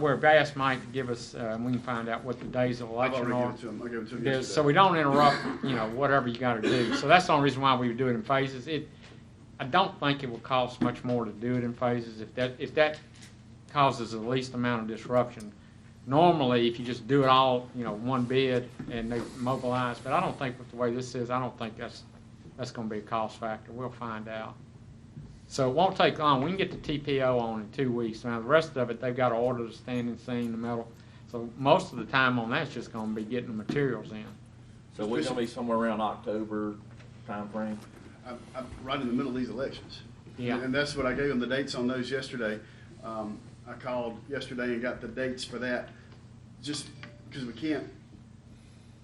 we've asked Mike to give us, uh, we can find out what the days of I've election already are. given it to him, I gave it to him Yeah, yesterday. So we don't interrupt, you know, whatever you gotta do. So that's the only reason why we do it in phases. It, I don't think it will cost much more to do it in phases if that, if that causes the least amount of disruption. Normally, if you just do it all, you know, one bid and they mobilize, but I don't think with the way this is, I don't think that's, that's gonna be a cost factor. We'll find out. So it won't take long. We can get the TPO on in two weeks. Now, the rest of it, they've got to order the standing seam, the metal. So most of the time on that's just gonna be getting the materials in. So we're gonna be somewhere around October timeframe? I'm, I'm right in the middle of these elections. Yeah. And that's what I gave them the dates on those yesterday. Um, I called yesterday and got the dates for that, just because we can't,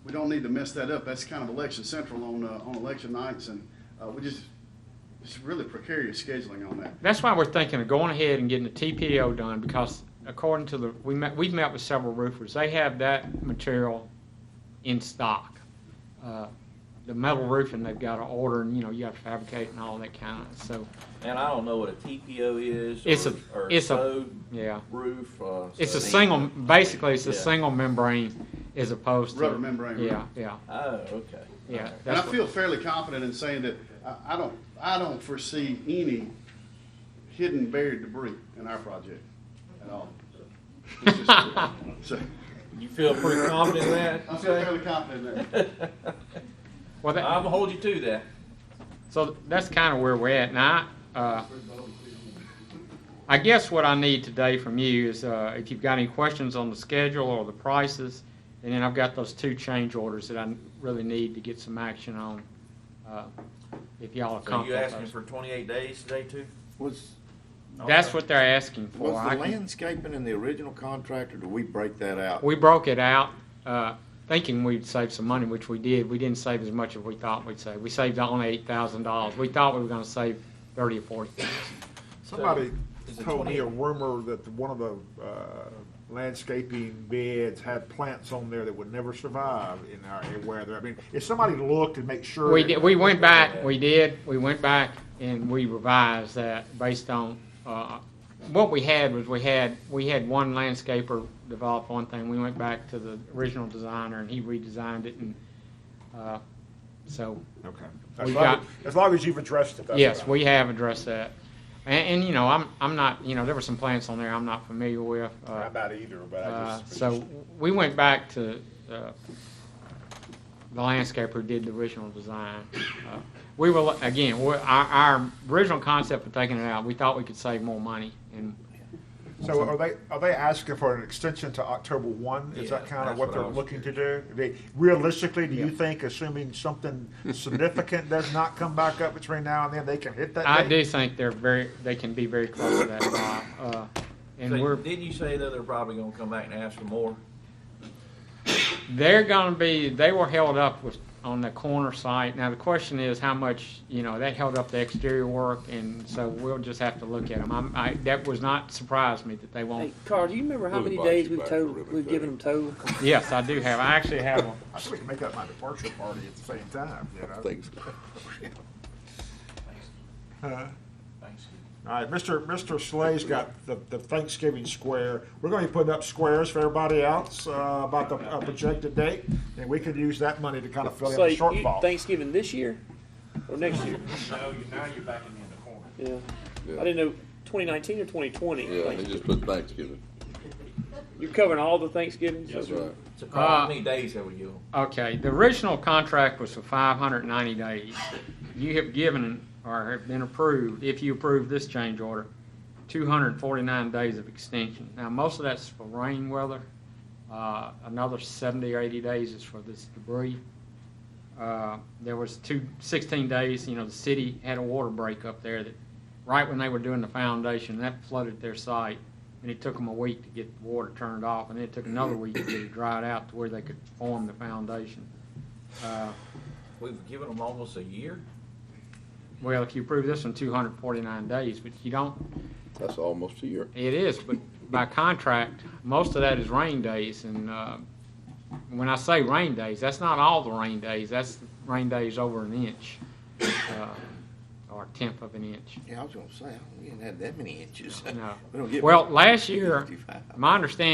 we don't need to mess that up. That's kind of election central on, uh, on election nights, and, uh, we just, it's really precarious scheduling on that. That's why we're thinking of going ahead and getting the TPO done, because according to the, we met, we've met with several roofers, they have that material in stock. Uh, The metal roofing, they've got to order, and, you know, you have to fabricate and all that kind of, so, And I don't know what a TPO is. It's a- or- Or it's a- stove yeah. roof, uh. It's a something. single, basically, it's a Yeah. single membrane as opposed to. Rubber membrane, right? Yeah, yeah, Oh, okay. yeah. And I that's what- feel fairly confident in saying that I, I don't, I don't foresee any hidden buried debris in our project at all. It's just- so, You feel pretty confident in that? I feel fairly confident in that. Well, that- I'm gonna hold you to that. So that's kind of where we're at. Now, I, uh, I guess what I need today from you is uh, if you've got any questions on the schedule or the prices, and then I've got those two change orders that I really need to get some action on. Uh, if y'all are So you comfortable. asking with for twenty-eight days today too? Was, those. That's what they're asking for. was I the can- landscaping in the original contract, or did we break that out? We broke it out, uh, thinking we'd save some money, which we did. We didn't save as much as we thought we'd save. We saved only eight thousand dollars. We thought we were gonna save thirty or forty Somebody Is it told me 28? a rumor that the- one of the uh, landscaping beds had plants on there that would never survive in our weather. I mean, if somebody looked and make sure. We that- did, we went back, we did, we went back and we revised that based on, uh, what we had was we had, we had one landscaper develop one thing. We went back to the original designer and he redesigned it and, uh, so, Okay. We As long, got- as long as you've addressed it. that's yes, fine. we have addressed that. And, and, you know, I'm, I'm not, you know, there were some plants on there I'm not familiar with. uh, Not about either, but I uh, just. So we went back to uh, the landscaper who did the original design. Uh, We were, again, we- our, our original concept of taking it out, we thought we could save more money. And So are they, are they asking for an extension to October one? Is that Yeah, kind of that's what what they're I was looking to do? They- Realistically, do you think, assuming something significant does not come back up between now and then, they can hit that I date? do think they're very, they can be very close to that, Bob. Uh, And So we're, Didn't you say though they're probably gonna come back and ask for more? they're gonna be, they were held up with, on the corner site. Now, the question is how much, you know, that held up the exterior work, and so we'll just have to look at them. I'm, I, that was not, surprised me that they won't Hey, Carl, do you remember how many days we've total, we've given them total? Yes, I do have. I actually have one. I think we can make up my departure party at the same time, you know? Things- Thanksgiving. All right, Mr. Mr. Slay's got the, the Thanksgiving square. We're going to be putting up squares for everybody else uh, about the uh, projected date, and we could use that money to kind of fill in So the you- shortfall. Thanksgiving this year or next year? No, you, now you're back in the corner. Yeah. Yeah. I didn't know, twenty nineteen or twenty twenty? Yeah, they just put Thanksgiving. You're covering all the Thanksgivings? That's right. So Carl, Uh, how many days have we given? them? Okay, the original contract was for five hundred and ninety days. You have given or have been approved, if you approve this change order, two hundred and forty-nine days of extension. Now, most of that's for rain weather. Uh, another seventy or eighty days is for this debris. Uh, there was two, sixteen days, you know, the city had a water break up there that, right when they were doing the foundation, that flooded their site. And it took them a week to get the water turned off, and then it took another week to get it dried out to where they could form the foundation. Uh, We've given them almost a year? Well, if you approve this in two hundred and forty-nine days, but you don't, That's almost a year. It is, but by contract, most of that is rain days, and uh, when I say rain days, that's not all the rain days, that's rain days over an inch, uh, or a tenth of an inch. Yeah, I was gonna say, we didn't have that many inches. No. We don't get Well, last year, 55. My understanding